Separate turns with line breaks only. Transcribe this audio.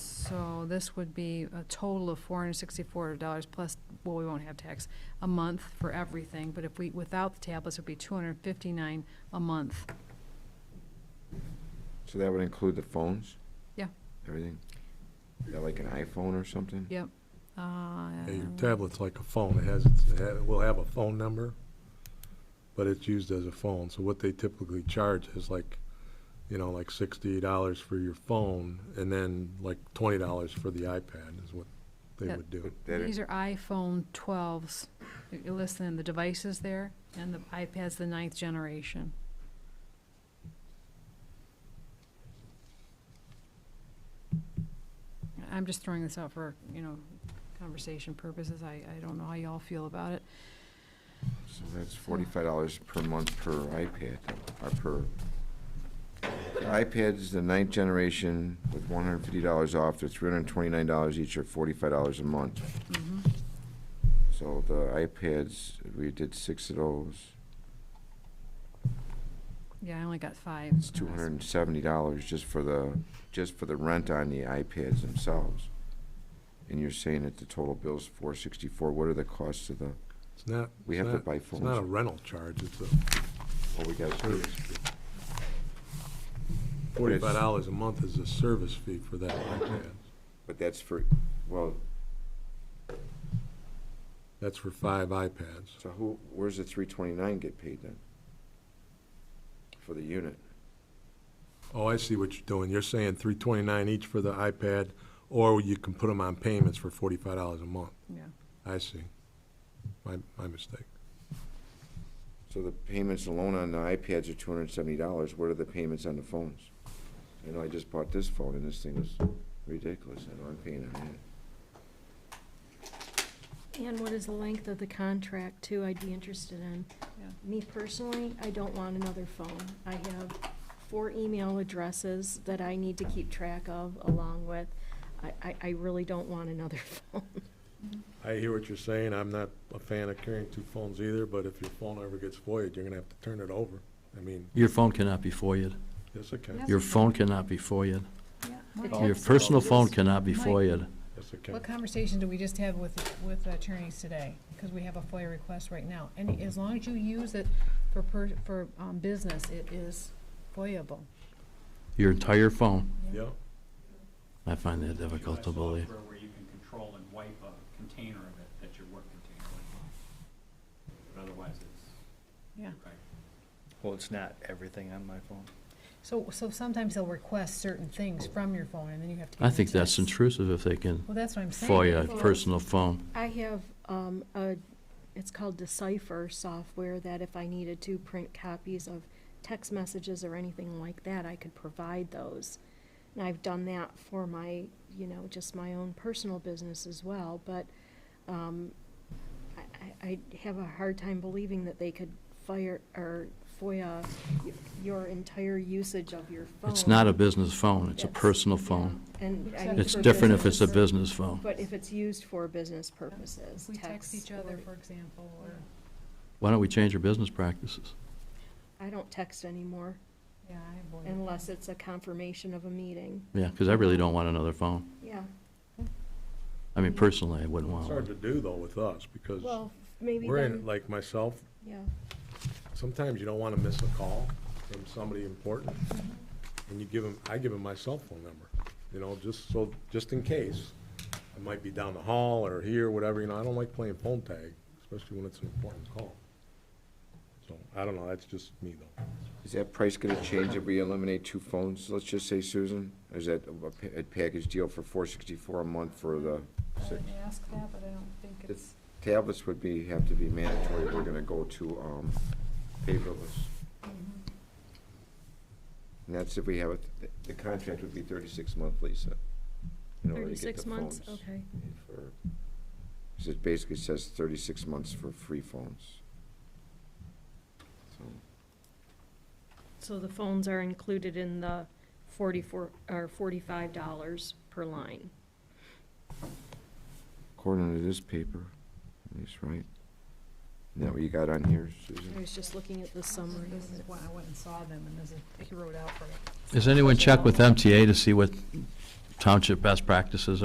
So this would be a total of four hundred sixty-four dollars plus, well, we won't have tax, a month for everything, but if we, without the tablets, it'd be two hundred fifty-nine a month.
So that would include the phones?
Yeah.
Everything? Is that like an iPhone or something?
Yep. Uh,
Yeah, Your tablet's like a phone. It has, it ha- it will have a phone number, but it's used as a phone. So what they typically charge is like, you know, like sixty dollars for your phone and then like twenty dollars for the iPad is what they
That-
would do.
That-
These are iPhone twelves. You're listening, the devices there, and the iPad's the ninth generation. I'm just throwing this out for, you know, conversation purposes. I, I don't know how y'all feel about it.
So that's forty-five dollars per month per iPad, or per, iPad's the ninth generation with one hundred and fifty dollars off, they're three hundred and twenty-nine dollars each, or forty-five dollars a month.
Mhm.
So the iPads, we did six of those,
Yeah, I only got five.
it's two hundred and seventy dollars just for the, just for the rent on the iPads themselves. And you're saying that the total bill's four sixty-four, what are the costs of the,
It's not,
we
it's
have to
not-
buy
it's not a
phones?
rental charge. It's a
Well, we got
service fee. Forty-five dollars a month is a service fee for that iPad.
But that's for, well,
That's for five iPads.
So who, where's the three twenty-nine get paid then? For the unit?
Oh, I see what you're doing. You're saying three twenty-nine each for the iPad, or you can put them on payments for forty-five dollars a month.
Yeah.
I see. My, my mistake.
So the payments alone on the iPads are two hundred and seventy dollars, what are the payments on the phones? You know, I just bought this phone and this thing was ridiculous, I know I'm paying on that.
And what is the length of the contract too, I'd be interested in.
Yeah.
Me personally, I don't want another phone. I have four email addresses that I need to keep track of along with. I, I, I really don't want another phone.
I hear what you're saying. I'm not a fan of carrying two phones either, but if your phone ever gets voided, you're gonna have to turn it over. I mean,
Your phone cannot be FOIA'd.
yes, it can.
Yes.
Your phone cannot be FOIA'd.
Mike.
Mike,
Your personal phone cannot be
Mike.
FOIA'd.
Yes, it
What
can.
conversation do we just have with, with attorneys today? Because we have a FOIA request right now. And as long as you use it for, per- for um, business, it is FOIAble.
Your entire phone.
Yeah,
I find that difficult to
US
believe.
software Where you can control and wipe a container of it, that's your work container. But otherwise, it's,
Yeah.
right.
Well, it's not everything on my phone.
So, so sometimes they'll request certain things from your phone, and then you have to. give
I
them
think that's
tests.
intrusive if they can
Well, that's what I'm saying.
FOIA a personal phone.
I have, um, a, it's called Decipher software that if I needed to print copies of text messages or anything like that, I could provide those. And I've done that for my, you know, just my own personal business as well, but, um, I, I, I have a hard time believing that they could fire, or FOIA y- your entire usage of your phone.
It's not a business phone. It's a
That's-
personal
yeah.
phone.
And I mean.
It's
for
different if it's a
businesses-
business phone.
But if it's used for business purposes,
We text
text
each other,
or-
for example, or,
Why don't we change our business practices?
I don't text anymore
yeah, I avoid.
unless it's a confirmation of a meeting.
Yeah, because I really don't want another phone.
Yeah,
I mean, personally, I wouldn't
it's
want
hard
one.
to do though with us, because
well, maybe
we're in, it,
then,
like myself,
yeah.
sometimes you don't wanna miss a call from somebody important. And you give them, I give them my cell phone number, you know, just so, just in case. I might be down the hall or here, whatever, you know, I don't like playing phone tag, especially when it's an important call. So, I don't know, that's just me though.
Is that price gonna change if we eliminate two phones, let's just say, Susan? Or is that a, pa- a package deal for four sixty-four a month for the
I
six?
would ask that, but I don't think it's,
It's- Tablets would be, have to be mandatory, we're gonna go to, um, paperless. And that's if we have, it- the contract would be thirty-six month, Lisa. in order to get the
Thirty-six months,
phones
okay.
for- so It basically says thirty-six months for free phones. So,
So the phones are included in the forty-four, or forty-five dollars per line.
According to this paper, at least, right? Isn't that what you got on here,
I
Susan?
was just looking at the summary.
this is why I went and saw them, and this is, he wrote out for it.
Has anyone checked with MTA to see what township best practices